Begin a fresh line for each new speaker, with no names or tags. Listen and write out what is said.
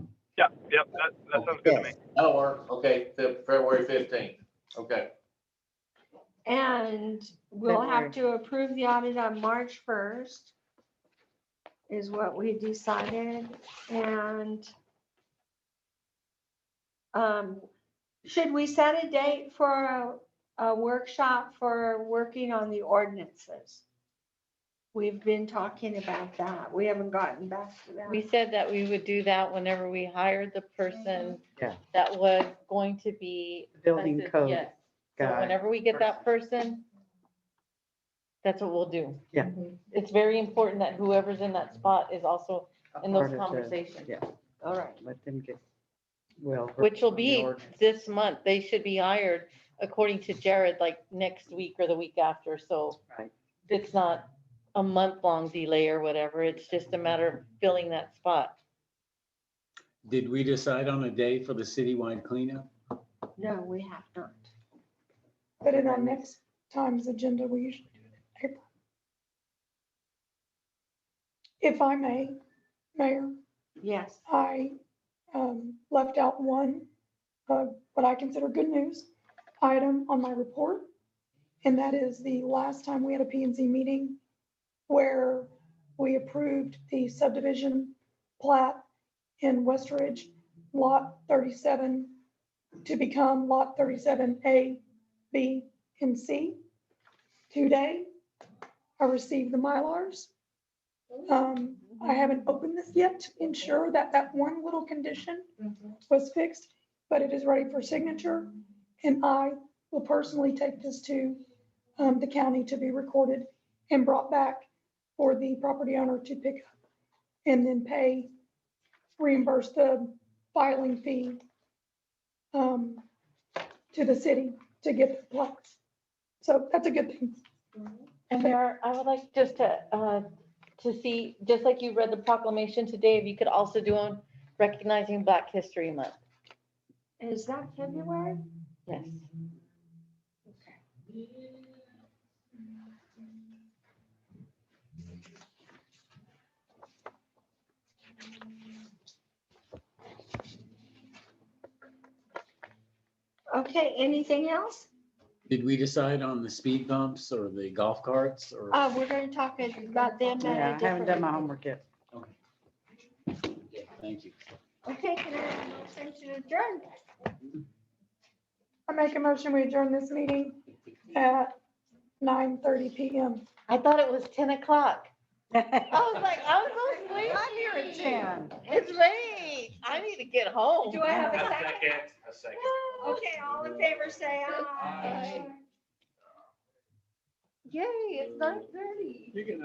Yep, yep, that, that sounds good to me.
That'll work. Okay, the February fifteenth. Okay.
And we'll have to approve the audit on March first is what we decided and um, should we set a date for a, a workshop for working on the ordinances? We've been talking about that. We haven't gotten back to
We
that.
said that we would do that whenever we hired the person
Yeah.
that was going to be.
Building
tested,
code
yes. So
guy.
whenever we get that person, that's what we'll do.
Yeah.
It's very important that whoever's in that spot is also in
Part
those
of the-
conversations,
Yeah,
All right.
let them get, well.
which will
the
be
ordinance.
this month. They should be hired, according to Jared, like next week or the week after, so
Right.
it's not a month-long delay or whatever. It's just a matter of filling that spot.
Did we decide on a day for the citywide cleanup?
No, we have not.
But in our next time's agenda, we usually do it in April. If I may, Mayor,
Yes.
I um, left out one, uh, what I consider good news item on my report. And that is the last time we had a P and Z meeting where we approved the subdivision plat in West Ridge, Lot 37, to become Lot 37A, B, and C. Today, I received the Mylars. Um, I haven't opened this yet to ensure that that one little condition was fixed, but it is ready for signature. And I will personally take this to um, the county to be recorded and brought back for the property owner to pick up and then pay, reimburse the filing fee um, to the city to get the plaques. So that's a good thing.
And there, are- I would like just to, uh, to see, just like you read the proclamation today, if you could also do on recognizing Black History Month.
Is that February?
Yes.
Okay, anything else?
Did we decide on the speed bumps or the golf carts or?
Uh, we're gonna talk about them at a
Yeah, I haven't
different-
done my homework yet.
Okay. Thank you.
Okay, can I have a motion to adjourn?
I make a motion, we adjourn this meeting at 9:30 PM.
I thought it was ten o'clock. I
I'm
was like, I was so sleepy. It's late. I need to get home.
Do I have a second?
A second.
Okay, all in favor, say aye.
Yay, it's nine thirty.
You can